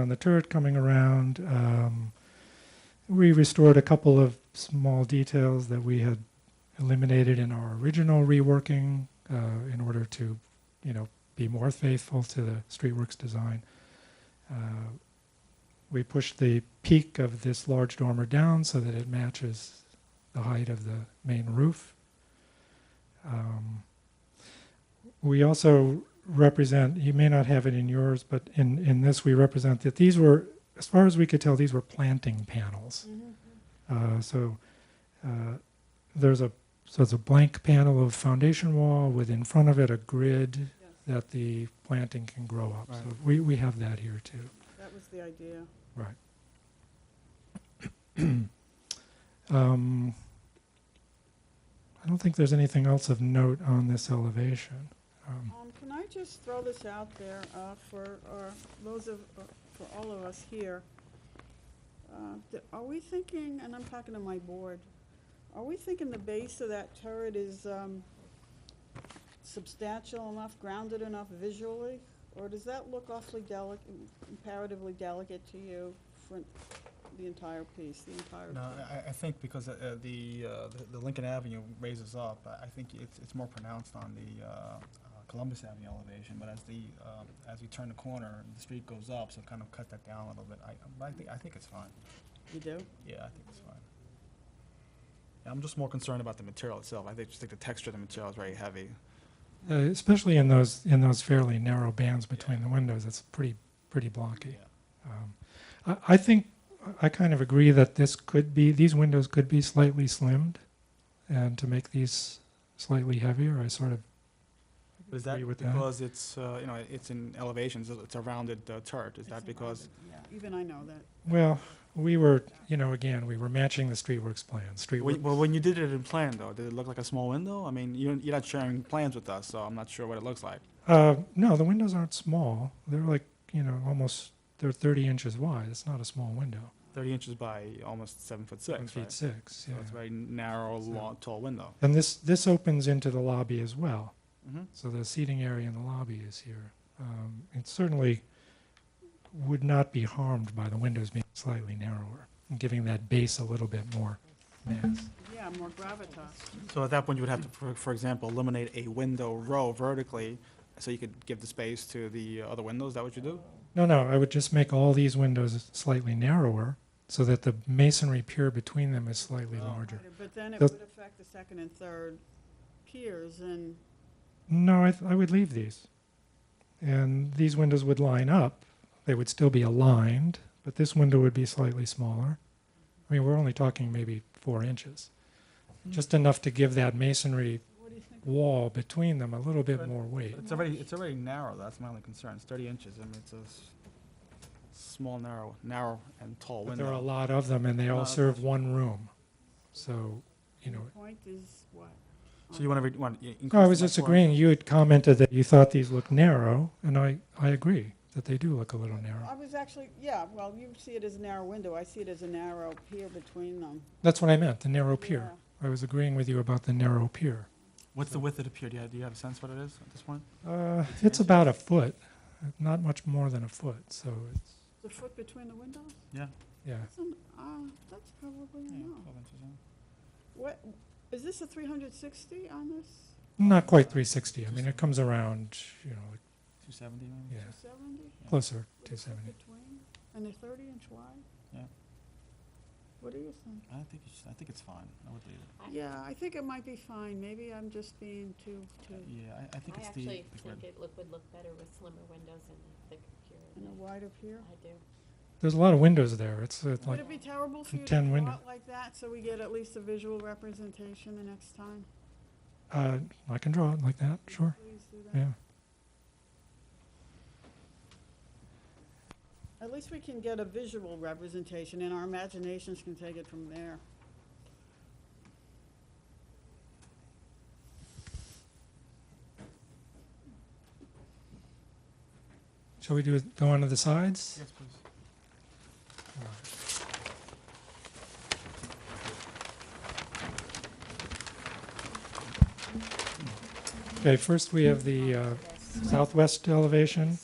on the turret coming around. Um, we restored a couple of small details that we had eliminated in our original reworking uh, in order to, you know, be more faithful to the Streetworks design. Uh, we pushed the peak of this large dormer down so that it matches the height of the main roof. Um, we also represent, you may not have it in yours, but in, in this we represent that these were, as far as we could tell, these were planting panels. Uh, so uh, there's a so it's a blank panel of foundation wall with in front of it a grid Yes, that the planting can grow up. So Right. we, we have that here too. that was the idea. Right. Um, I don't think there's anything else of note on this elevation. Um, Um, Can I just throw this out there uh, for our- those of, uh, for all of us here? Uh, th- Are we thinking, and I'm talking to my board, are we thinking the base of that turret is um, substantial enough, grounded enough visually? Or does that look awfully delicate, comparatively delicate to you for the entire piece, the entire? No, thing? I- I, I think because uh, uh, the, uh, the- the Lincoln Avenue raises up, I I think it's, it's more pronounced on the uh, uh, Columbus Avenue elevation, but as the, um, as we turn the corner, the street goes up, so kind of cut that down a little bit. I, but I think, I think it's fine. You do? Yeah, I think it's fine. Yeah, I'm just more concerned about the material itself. I think, just think the texture of the material is very heavy. uh, especially in those in those fairly narrow bands between the windows, it's pretty pretty blocky. Yeah. Um, I, I think I kind of agree that this could be these windows could be slightly slimmed, and to make these slightly heavier, I sort of But Is that Agree with that. because it's, uh, you know, it's in elevations, it's a rounded uh, turret? Is that because? Yeah, even I know that. well we were you know again we were matching the streetworks plan. Streetworks. Well, when you did it in plan, though, did it look like a small window? I mean, you're, you're not sharing plans with us, so I'm not sure what it looks like. Uh, no, the windows aren't small. They're like you know almost they're 30 inches wide. It's not a small window. 30 inches by almost seven foot six, Seven feet right? six. So Yeah. it's a very narrow, So- long, tall window. And this this opens into the lobby as well. Mm-hmm. So the seating area in the lobby is here. Um, It certainly would not be harmed by the windows being slightly narrower, and giving that base a little bit more mass. Yeah, more gravitas. So at that point, you would have to, for, for example, eliminate a window row vertically, so you could give the space to the other windows. Is that what you do? No, no, I would just make all these windows slightly narrower so that the masonry pier between them is slightly Oh. larger. But then it Does- would affect the second and third piers and, No, I, th- I would leave these. And these windows would line up. They would still be aligned, but this window would be slightly smaller. I mean, we're only talking maybe four inches, just enough to give that masonry what do you think? wall between them a little bit But- more weight. It's already, it's already narrow. That's my only concern. It's 30 inches. I mean, it's a s- small, narrow, narrow and tall But window. there are a lot of them, and they all Uh, serve one room. So, you know. The Point is what? so you want to, re- want to i- increase? No, I was it by just four? agreeing. You had commented that you thought these looked narrow, and I, I agree that they do look a little I narrow. was actually, yeah, well, you see it as a narrow window, I see it as a narrow pier between them. That's what I meant, the narrow pier. I was agreeing with you about the narrow pier. What's the width of the pier? Do you, have- do you have a sense what it is at this point? Uh, it's about a foot, not much more than a foot. So it's The foot between the windows? Yeah. yeah. That's, an- uh, that's probably a Oh. no. What, is this a three hundred sixty on this? Not quite 360. I mean, it comes around, you know, like, 270 yeah, maybe? Seventy? closer With a foot 270. between, and they're thirty inch wide? Yeah. What do you think? I think it's, I think it's fine. I would leave it. Yeah, I think it might be fine, maybe I'm just being too, too. Yeah, I, I think I it's the. actually the think grid. it look, would look better with slimmer windows and a thicker And a interior. wide up here. I do. There's a lot of windows there. It's, it's Would like it be terrible for you to ten go window- out like that, so we get at least a visual representation the next time? Uh, I can draw it like that, Would you sure, Please do that. yeah. At least we can get a visual representation, and our imaginations can take it from there. Shall we do it, go on to the sides? Yes, please. Okay, first we have the uh, southwest elevation.